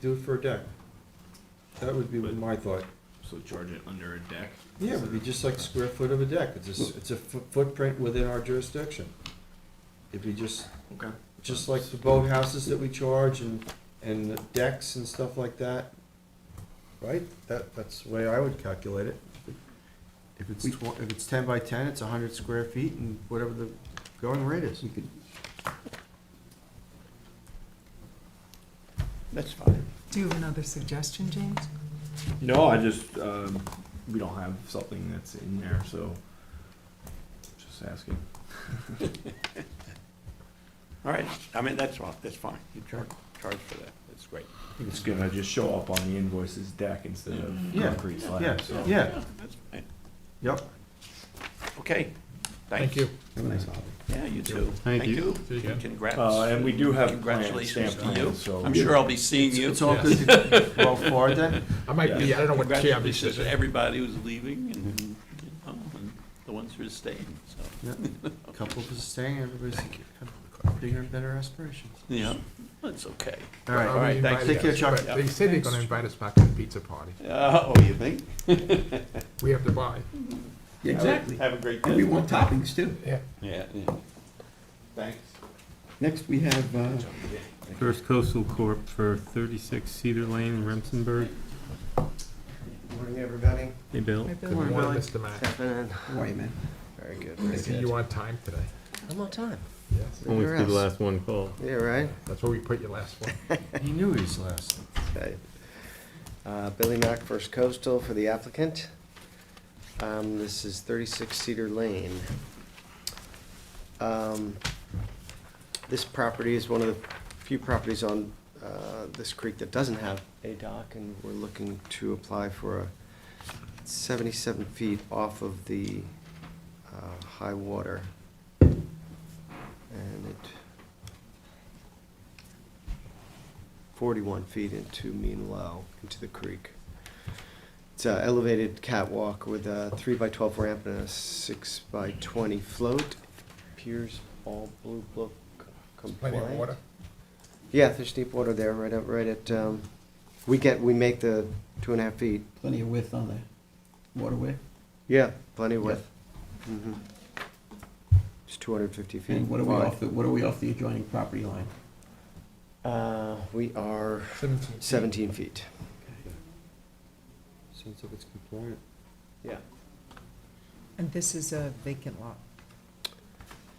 do it for a deck. That would be But- my thought. So charge it under a deck? Yeah, it would be just like the square foot of a deck. It's a, s- it's a fo- footprint within our jurisdiction. It'd be just, Okay. just like the boathouses that we charge and, and the decks and stuff like that. Right? That, that's the way I would calculate it. If it's tw- if it's ten by ten, it's a hundred square feet and whatever the going rate is. We could. That's fine. Do you have another suggestion, James? No, I just, um, we don't have something that's in there, so just asking. All right, I mean, that's fine, that's fine. You charge, charge for that, that's great. It's gonna just show up on the invoices deck instead of Yeah, concrete Yeah, slab, so. yeah, That's fine. yep. Okay, thanks. Thank you. Have a nice holiday. Yeah, you too. Thank you. Thank you. And Congrats. Uh, and we do have plans Congratulations stamped to in, you. so. I'm sure I'll be seeing you. It's all good to go forward then? I might be, I don't know what cab he's Congratulations sitting to in. everybody who's leaving and, you know, and the ones who are staying, so, Yeah, couple of us staying, everybody's bigger and better aspirations. yeah, that's okay. All right, I'll all be right, thanks, invited, take care, Chuck. but They said they're gonna invite us back to the pizza party. Uh, Oh, you think? We have to buy. Exactly. Have a great day. We want toppings too. Yeah. Yeah, yeah. Thanks. Next, we have, uh, First Coastal Corp. for 36 Cedar Lane in Remsenburg. Morning, everybody. Hey, Bill. Maybe Good I'll- morning, Morning, Billy. Mr. Mack. Stepping in. how are you, man? Very good, I see very you good. on time today. I'm on time. Yes. Only Where through the else? last one call. Yeah, right? That's where we put your last one. He knew he was last. Okay. Uh, Billy Mack, First Coastal for the applicant. Um, This is 36 Cedar Lane. Um, This property is one of the few properties on uh, this creek that doesn't have a dock, and we're looking to apply for a 77 feet off of the uh, high water. And it 41 feet into mean low, into the creek. It's an elevated catwalk with a 3 by 12 ramp and a 6 by 20 float. Appears all Blue Book Plenty of water. compliant. Yeah, there's deep water there, right up, right at, um, we get, we make the two and a half feet. Plenty of width on the waterway. Yeah, plenty of width. Mhm. It's 250 feet Mm-hmm. And what are we wide. off, the what are we off the adjoining property line? Uh, We are Seventeen. 17 feet. Sounds like it's compliant. Yeah. And this is a vacant lot.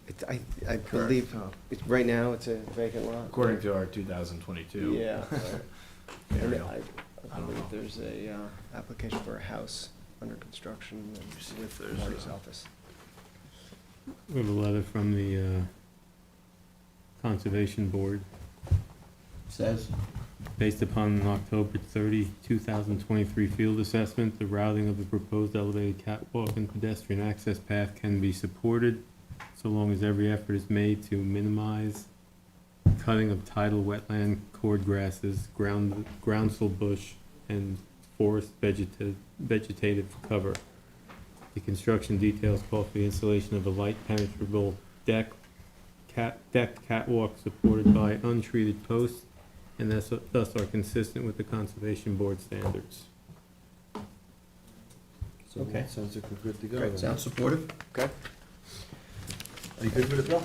It- I, I believe, it- right now, it's a vacant lot. According to our two thousand twenty-two. Yeah. And Aerial. I I I don't believe know. there's a, uh, application for a house under construction and with Marty's office. We have a letter from the uh, Conservation Board. Says, Based upon an October 30, 2023 field assessment, the routing of the proposed elevated catwalk and pedestrian access path can be supported so long as every effort is made to minimize cutting of tidal wetland cord grasses, ground, groundsel bush, and forest vegeta- vegetative cover. The construction details call for the installation of a light penetrable deck, cat, deck catwalk supported by untreated posts and thus, thus are consistent with the Conservation Board standards. So Okay. Sounds like we're good to go. great, then. sounds supportive? Okay, Are you good with it, Bill?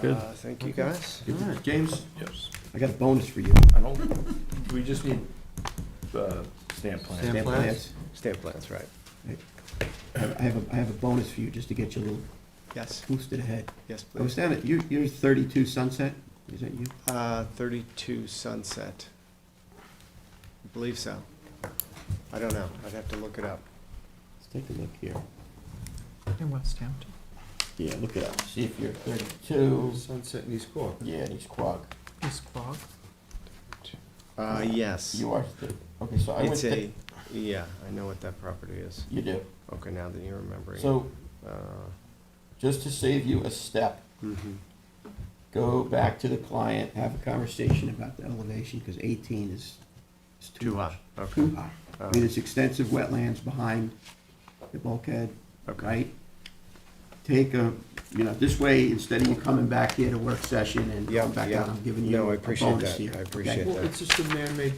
Good. uh, thank you, guys. All right, James? Yes. I got a bonus for you. I don't, we just need, uh, stamp plans. Stamp plans? Stamp plans, right. I have- I have, a I have a bonus for you, just to get you a little Yes, boosted ahead. yes, I was please. down at, you, you're thirty-two Sunset, is that you? Uh, thirty-two Sunset. I believe so. I don't know. I'd have to look it up. Let's take a look here. In West Hampton. Yeah, look it up, see if you're thirty-two. Sunset and East Quogue. Yeah, East Quogue. East Quogue. Uh, yes. You are, thir- okay, so I went It's to, a, yeah, I know what that property is. you do. Okay, now that you're remembering. So, Uh, just to save you a step, mhm. go back to the client, have a conversation about the elevation, because eighteen is, is too Too much. high, Uh. okay. Too high. I All mean, right. it's extensive wetlands behind the bulkhead, Okay. right? Take a, you know, this way, instead of you coming back here to work session and Yeah, coming back yeah. out, I'm giving you No, I a appreciate bonus that. here. I okay? appreciate that. Well, it's just a man-made